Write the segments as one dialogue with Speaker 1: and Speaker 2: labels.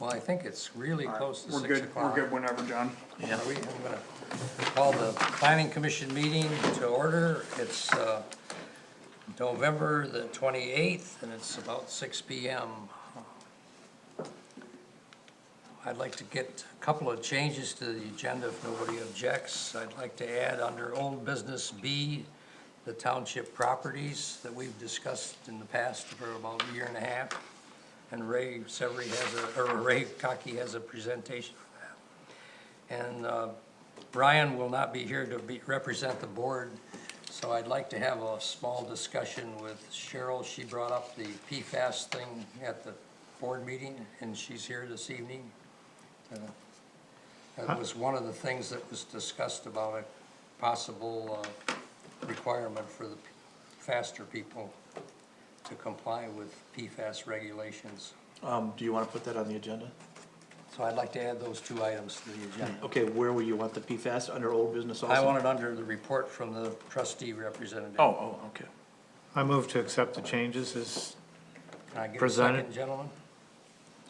Speaker 1: Well, I think it's really close to
Speaker 2: We're
Speaker 1: six
Speaker 2: good, we're
Speaker 1: o'clock.
Speaker 2: good whenever, John.
Speaker 1: Yeah, we, I'm gonna call the planning commission meeting to order. It's, uh, November the twenty-eighth, and it's about six P M. I'd like to get a couple of changes to the agenda if nobody objects. I'd like to add under old business B, the township properties that we've discussed in the past for about a year and a half. And Ray Severie has a, or Ray Cocky has a presentation for that. And uh, Brian will not be here to be, represent the board, so I'd like to have a small discussion with Cheryl. She brought up the PFAS thing at the board meeting, and she's here this evening. Uh, That was one of the things that was discussed about a possible uh, requirement for the faster people to comply with PFAS regulations.
Speaker 3: Um, do you wanna put that on the agenda?
Speaker 1: So I'd like to add those two items to the agenda.
Speaker 3: Okay, where will you want the PFAS, under old business also?
Speaker 1: I want it under the report from the trustee representative.
Speaker 3: Oh, oh, okay.
Speaker 4: I move to accept the changes as,
Speaker 1: Can I get a
Speaker 4: presented.
Speaker 1: second, gentlemen?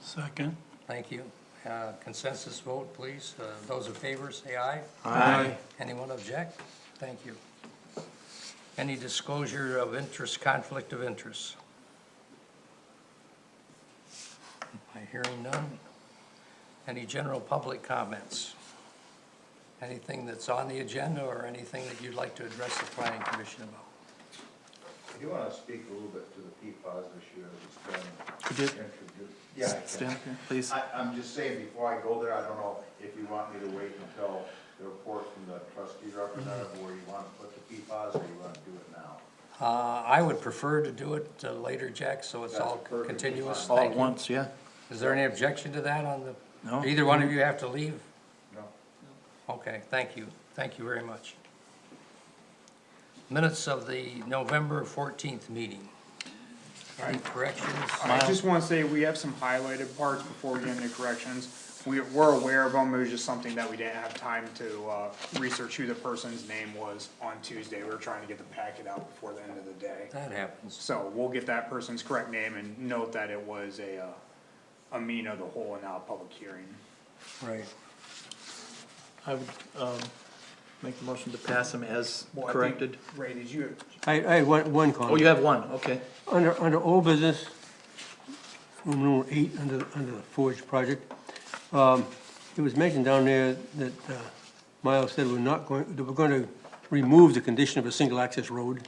Speaker 5: Second.
Speaker 1: Thank you. Uh, Consensus vote, please. Uh, Those in favor, say aye.
Speaker 4: Aye.
Speaker 1: Anyone object? Thank you. Any disclosure of interest, conflict of interest? I hearing none. Any general public comments? Anything that's on the agenda or anything that you'd like to address the planning commission about?
Speaker 6: I do want to speak a little bit to the PFAS issue that
Speaker 3: Could
Speaker 6: was
Speaker 3: you
Speaker 6: been introduced. Yeah, I
Speaker 3: Stand
Speaker 6: can.
Speaker 3: up here, please.
Speaker 6: I, I'm just saying, before I go there, I don't know if you want me to wait until the report from the trustee representative where you want to put the PFAS or you want to do it now?
Speaker 1: Uh, I would prefer to do it uh, later, Jack, so it's all
Speaker 6: That's perfectly
Speaker 1: continuous.
Speaker 3: All
Speaker 1: Thank
Speaker 3: at
Speaker 1: you.
Speaker 3: once, yeah.
Speaker 1: Is there any objection to that on the?
Speaker 3: No.
Speaker 1: Either one of you have to leave?
Speaker 6: No?
Speaker 1: Okay, thank you. Thank you very much. Minutes of the November fourteenth meeting. Any corrections?
Speaker 2: I just wanna say, we have some highlighted parts before we get into corrections. We, we're aware of them, it was just something that we didn't have time to, uh, research who the person's name was on Tuesday. We were trying to get the packet out before the end of the day.
Speaker 1: That happens.
Speaker 2: So we'll get that person's correct name and note that it was a, uh, a meeting of the whole and not a public hearing.
Speaker 1: Right.
Speaker 3: I would, um, make the motion to pass them as
Speaker 2: Well, I think-
Speaker 3: corrected.
Speaker 2: Ray, did you,
Speaker 7: I, I have one, one
Speaker 3: Oh, you
Speaker 7: comment.
Speaker 3: have one, okay.
Speaker 7: Under, under old business, room number eight, under, under the Forge project, um, it was mentioned down there that, uh, Miles said we're not going, that we're gonna remove the condition of a single access road,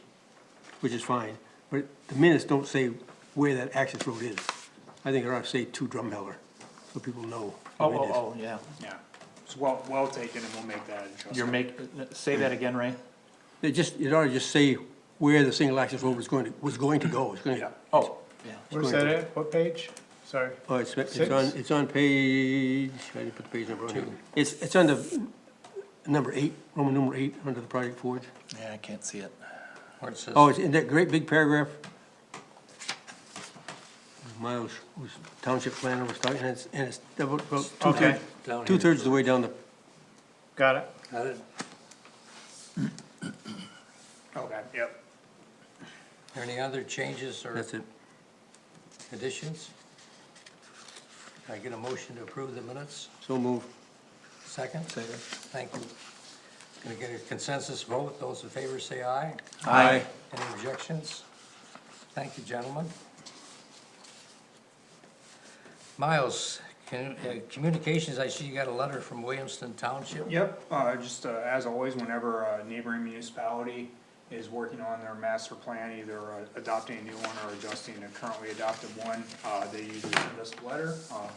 Speaker 7: which is fine, but the minutes don't say where that access road is. I think it ought to say to Drumheller, so people know.
Speaker 3: Oh,
Speaker 7: where it
Speaker 3: oh,
Speaker 7: is.
Speaker 3: oh, yeah.
Speaker 2: yeah, it's well, well taken and we'll make that adjustment.
Speaker 3: You're make, say that again, Ray?
Speaker 7: It just, it ought to just say where the single access road was going to, was going to go, it's gonna,
Speaker 3: Oh, yeah.
Speaker 4: where's that at, what page? Sorry.
Speaker 7: Oh, it's, it's on,
Speaker 4: Six?
Speaker 7: it's on page, I didn't put the page number on here. It's, it's under number eight, Roman number eight, under the Project Forge.
Speaker 3: Yeah, I can't see it.
Speaker 1: Where it says,
Speaker 7: Oh, it's in that great big paragraph. Miles, who's township planner, was talking, and it's, and it's about
Speaker 4: Okay.
Speaker 7: two-thirds,
Speaker 1: Down here.
Speaker 7: two-thirds of the way down the,
Speaker 4: Got it.
Speaker 1: got it?
Speaker 2: Okay, yep.
Speaker 1: Any other changes or
Speaker 7: that's it.
Speaker 1: additions? Can I get a motion to approve the minutes?
Speaker 7: So move.
Speaker 1: Second? Second. Thank you. Gonna get a consensus vote. Those in favor say aye.
Speaker 3: Aye.
Speaker 1: Any objections? Thank you, gentlemen. Miles, can, uh, communications, I see you got a letter from Williamston Township.
Speaker 2: Yep, uh, just, uh, as always, whenever a neighboring municipality is working on their master plan, either uh, adopting a new one or adjusting a currently adopted one, uh, they usually send us a letter, uh,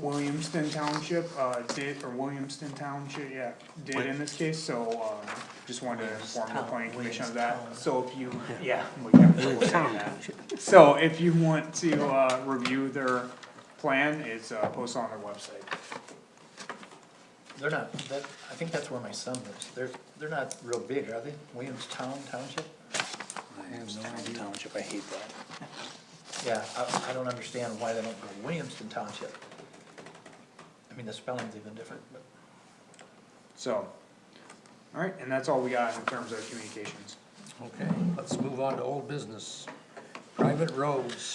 Speaker 2: Williamston Township, uh, did, or Williamston Township, yeah, did in this case, so, uh, just wanted to inform the planning commission of that. So if you, yeah, we got to look at that. So if you want to, uh, review their plan, it's, uh, posted on their website.
Speaker 8: They're not, that, I think that's where my son lives. They're, they're not real big, are they? Williamstown Township?
Speaker 1: I have no idea.
Speaker 8: Township, I hate that. Yeah, I, I don't understand why they don't go Williamston Township. I mean, the spelling's even different, but.
Speaker 2: So, all right, and that's all we got in terms of communications.
Speaker 1: Okay, let's move on to old business. Private roads.